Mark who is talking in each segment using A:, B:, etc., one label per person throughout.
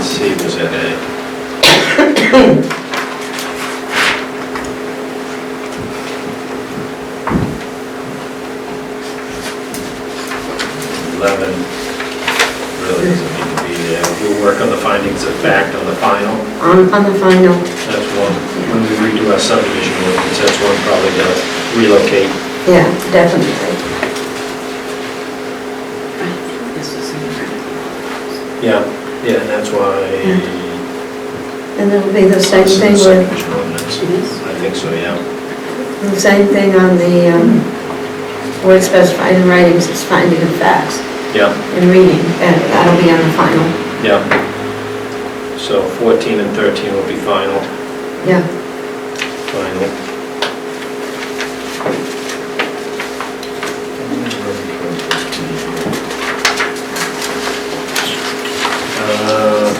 A: C was at A. Eleven really doesn't need to be there. We'll work on the findings of fact on the final.
B: on, on the final,
A: That's one. When we redo our subdivision ordinance, that's one probably to relocate.
B: yeah, definitely.
C: This is in red.
A: Yeah, yeah, and that's why.
B: And it'll be the same
A: This is
B: thing
A: the
B: with,
A: subdivision ordinance.
C: It is?
A: I think so, yeah.
B: the same thing on the, um, where it's specified in writings, it's finding of facts
A: Yeah.
B: and reading, and that'll be on the final,
A: Yeah. So 14 and 13 will be final,
B: yeah.
A: final. Uh,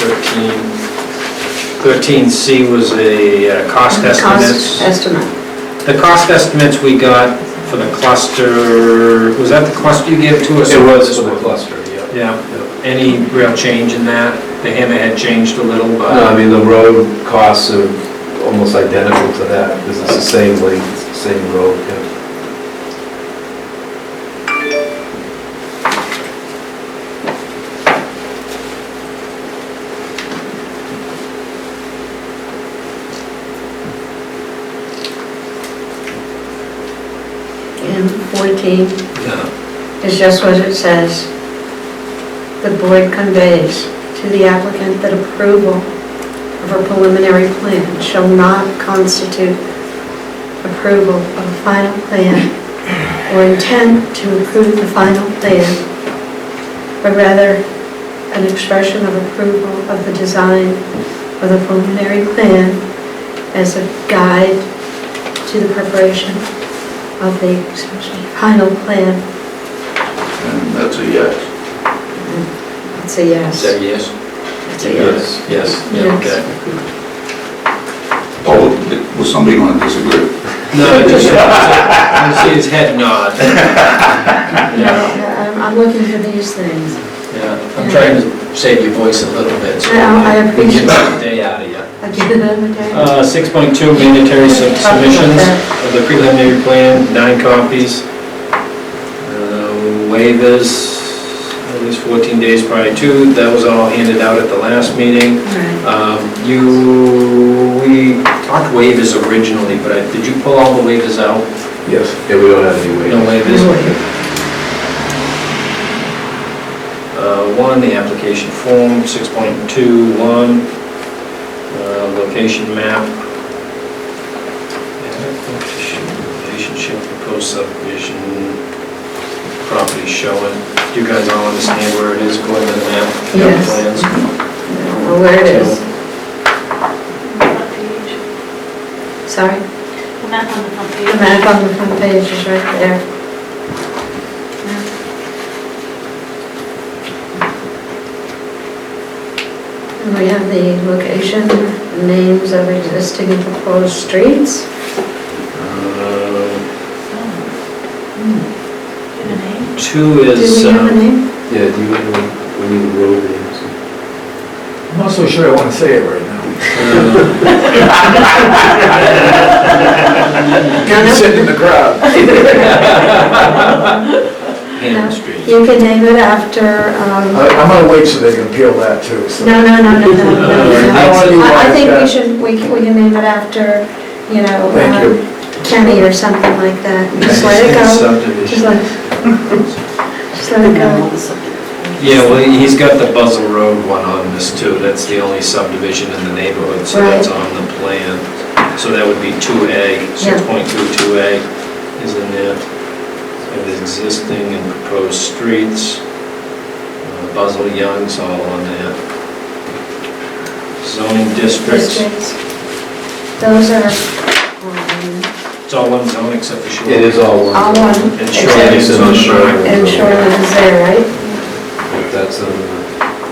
A: so 13, 13C was a uh, cost
B: Cost
A: estimate.
B: estimate,
A: The cost estimates we got for the cluster, was that the cluster you gave to us?
D: It was for the cluster, yeah.
A: Yeah, any real change in that? The hammerhead changed a little,
D: No, I
A: but,
D: mean, the road costs are almost identical to that, because it's the same length, same road, yeah.
B: and 14.
A: Yeah.
B: is just what it says. The board conveys to the applicant that approval of a preliminary plan shall not constitute approval of a final plan or intent to approve the final plan, but rather an expression of approval of the design of the preliminary plan as a guide to the preparation of the excuse me, final plan
E: And that's a yes.
B: it's a yes.
A: that a yes?
B: It's a yes.
A: Yes, yeah, okay.
E: Oh, was somebody going to disagree?
A: No, just, I see his head nod.
B: No, um, I'm, I'm looking for these things.
A: Yeah, I'm trying to save your voice a little bit, so.
B: Yeah, I
A: we can
B: appreciate
A: get the Day out of you.
B: Again, okay?
A: Uh, 6.2, mandatory sub- submissions of the preliminary plan, nine copies. Uh, Waivers, at least 14 days prior to, that was all handed out at the last meeting.
B: Right.
A: Um, You, we talked waivers originally, but I- did you pull all the waivers out?
D: Yes, yeah, we don't have any
A: No
D: weight.
A: waivers? Uh, One, the application form, 6.21, uh, location map. Relationship, proposed subdivision, property showing. Do you guys all understand where it is according to the map? the
B: Yes.
A: plans?
B: Well, where it is, sorry,
C: The map on the front
B: the
C: page.
B: map on the front page is right there. And we have the location, names of existing and proposed streets.
A: Uh,
C: Give a name.
A: Two
B: Do
A: is.
B: we have a
A: um,
B: name?
D: Yeah, do you, we need road names?
F: I'm not so sure I want to say it right now.
A: Uh,
B: No, no.
F: Sitting in the crowd.
A: Hammond Street.
B: You can name it after, um,
F: I- I'm gonna wait so they can peel that too, so.
B: No, no, no, no, no, no,
F: How do
B: no.
F: you
B: I I
F: like
B: think we
F: that?
B: should, we can, we can name it after, you know,
F: Thank
B: um,
F: you.
B: Kenny or something like that. Just let it go. Just
A: Subdivision.
B: let, just let it go.
A: Yeah, well, he's got the Buzzell Road one on this too, that's the only subdivision in the neighborhood, so that's
B: Right.
A: on the plan. So that would be 2A, 6.22A is in there. And the existing and proposed streets, uh, Buzzell Young's all on there. Zoning districts,
B: Districts. Those are, um,
A: it's all one zone except for shoreline.
D: It is all one.
B: all one,
A: And
B: except,
A: shoreline is on the
D: Except-
A: mark.
B: and shoreline is there, right?
D: um, That's on the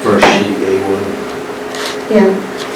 D: first sheet, A1.
B: Yeah.